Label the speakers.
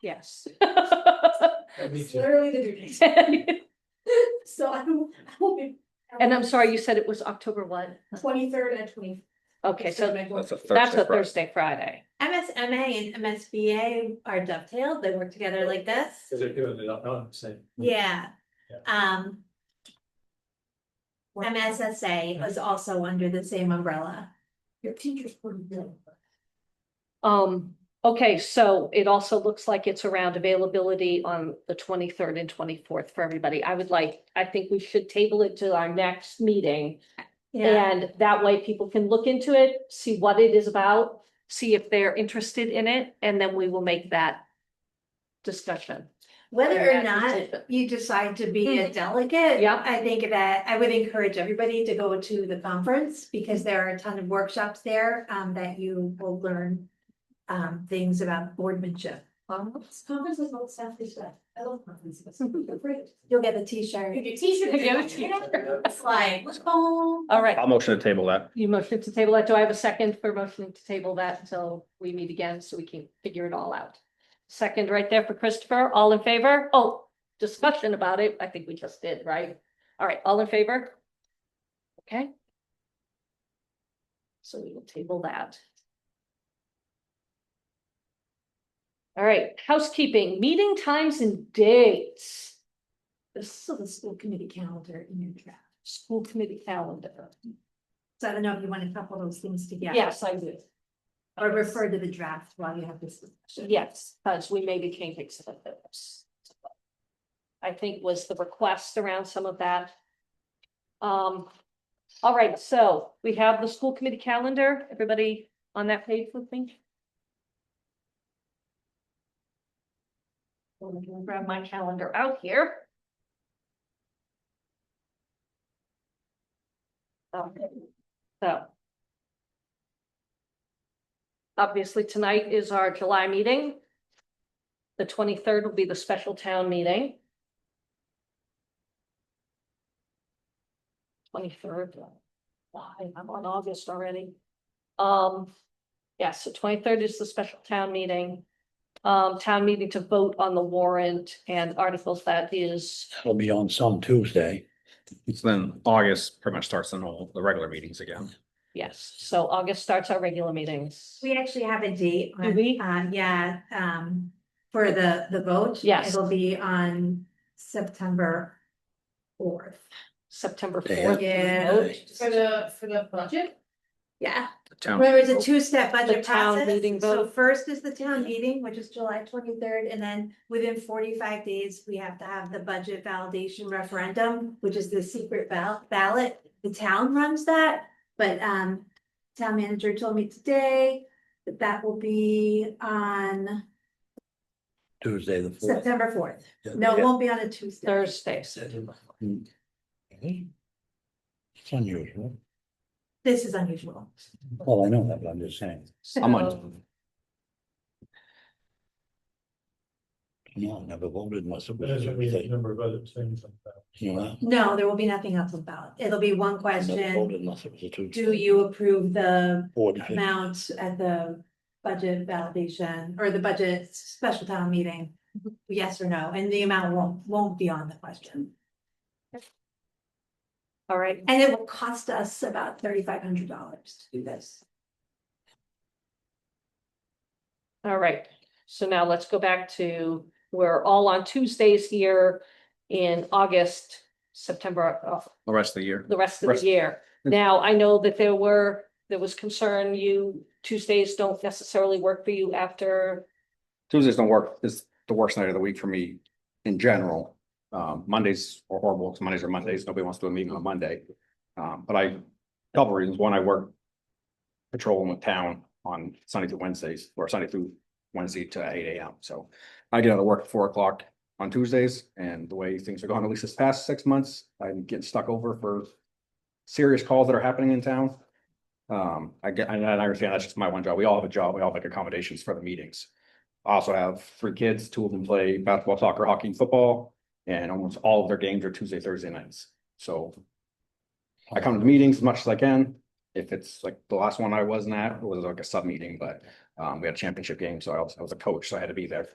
Speaker 1: Yes.
Speaker 2: Me
Speaker 3: It's
Speaker 2: too.
Speaker 3: literally the due date.
Speaker 1: And
Speaker 3: So I will, I will be.
Speaker 1: I'm sorry, you said it was October one?
Speaker 3: Twenty-third and twenty.
Speaker 1: Okay, so
Speaker 4: That's a Thursday.
Speaker 1: that's a
Speaker 4: Friday.
Speaker 1: Thursday, Friday.
Speaker 5: MSMA and MSBA are dovetailed, they work together like this,
Speaker 2: Cause they're doing it, on- on the same.
Speaker 5: yeah.
Speaker 2: Yeah.
Speaker 5: Um. MSSA was also under the same umbrella.
Speaker 3: Your teachers wouldn't know.
Speaker 1: Um, okay, so it also looks like it's around availability on the twenty-third and twenty-fourth for everybody. I would like, I think we should table it to our next meeting. And that way people can look into it, see what it is about, see if they're interested in it, and then we will make that discussion.
Speaker 5: Whether or
Speaker 1: Yeah,
Speaker 5: not
Speaker 1: decision.
Speaker 5: you decide to be a delegate.
Speaker 1: Yeah.
Speaker 5: I think that I would encourage everybody to go to the conference because there are a ton of workshops there um that you will learn. Um, things about boardmanship.
Speaker 3: This conference is all staff this stuff. I love conferences. They're great.
Speaker 5: You'll get the T-shirt.
Speaker 3: If your teacher.
Speaker 1: If your teacher-
Speaker 3: It's like,
Speaker 5: Let's go.
Speaker 1: All right,
Speaker 4: I'll motion to table that.
Speaker 1: you motion to table that. Do I have a second for motion to table that until we meet again so we can figure it all out? Second right there for Christopher. All in favor? Oh, discussion about it. I think we just did, right? All right, all in favor? Okay. So we will table that. All right, housekeeping, meeting times and dates,
Speaker 3: this is the school committee calendar in your draft.
Speaker 1: school committee calendar.
Speaker 5: So I don't know if you want to couple those things together.
Speaker 1: Yes, I do.
Speaker 5: Or refer to the draft while you have this discussion.
Speaker 1: Yes, because we maybe can fix some of those. I think was the request around some of that. Um, all right, so we have the school committee calendar. Everybody on that page with me? I'm gonna Grab my calendar out here. Okay, so. Obviously, tonight is our July meeting. The twenty-third will be the special town meeting. Twenty-third, why, I'm on August already. Um, yes, the twenty-third is the special town meeting. Um, town meeting to vote on the warrant and articles that is,
Speaker 6: It'll be on some Tuesday.
Speaker 4: So then August pretty much starts the normal, the regular meetings again.
Speaker 1: yes, so August starts our regular meetings.
Speaker 5: We actually have a date
Speaker 1: Do we?
Speaker 5: on, um, yeah, um, for the, the vote.
Speaker 1: Yes.
Speaker 5: It'll be on September fourth.
Speaker 1: September
Speaker 6: They
Speaker 1: fourth.
Speaker 5: have-
Speaker 3: For the, for the budget?
Speaker 5: Yeah,
Speaker 4: The town,
Speaker 5: remember it's a two-step budget
Speaker 1: town
Speaker 5: process.
Speaker 1: meeting
Speaker 5: So
Speaker 1: vote.
Speaker 5: first is the town meeting, which is July twenty-third, and then within forty-five days, we have to have the budget validation referendum, which is the secret bal- ballot. The town runs that, but, um, town manager told me today that that will be on
Speaker 6: Tuesday, the fourth.
Speaker 5: September fourth. No, it won't be on a Tuesday.
Speaker 1: Thursday,
Speaker 6: Hmm. It's unusual.
Speaker 5: This is unusual.
Speaker 6: Well, I know that, but I'm just saying.
Speaker 4: I'm
Speaker 1: so,
Speaker 4: on,
Speaker 6: No, I never voted unless it
Speaker 2: But there's
Speaker 6: was
Speaker 2: gonna be a
Speaker 6: Tuesday.
Speaker 2: number of other things like that.
Speaker 6: You know?
Speaker 5: No, there will be nothing else about. It'll be one
Speaker 6: I never
Speaker 5: question.
Speaker 6: voted unless it was a Tuesday.
Speaker 5: Do you approve the
Speaker 6: Four to fifty.
Speaker 5: amount at the budget validation or the budget special town meeting? Yes or no? And the amount won't, won't be on the question.
Speaker 1: all right,
Speaker 5: And it will cost us about thirty-five hundred dollars to do this.
Speaker 1: All right, so now let's go back to, we're all on Tuesdays here in August, September, uh,
Speaker 4: the rest of the year.
Speaker 1: the rest of
Speaker 4: Rest-
Speaker 1: the year. Now, I know that there were, there was concern, you, Tuesdays don't necessarily work for you after,
Speaker 4: Tuesdays don't work, is the worst night of the week for me in general. Um, Mondays are horrible, because Mondays are Mondays, nobody wants to do a meeting on a Monday. Um, but I, couple reasons, one, I work patrolling with town on Sunday through Wednesdays, or Sunday through Wednesday to eight AM, so I get out of work at four o'clock on Tuesdays, and the way things are going, at least this past six months, I'm getting stuck over for serious calls that are happening in town. Um, I get, and I understand that's just my one job, we all have a job, we all make accommodations for the meetings. I also have three kids, two of them play basketball, soccer, hockey, and football, and almost all of their games are Tuesday, Thursday nights, so. I come to meetings as much as I can, if it's like the last one I wasn't at, it was like a sub meeting, but, um, we had a championship game, so I was, I was a coach, so I had to be there.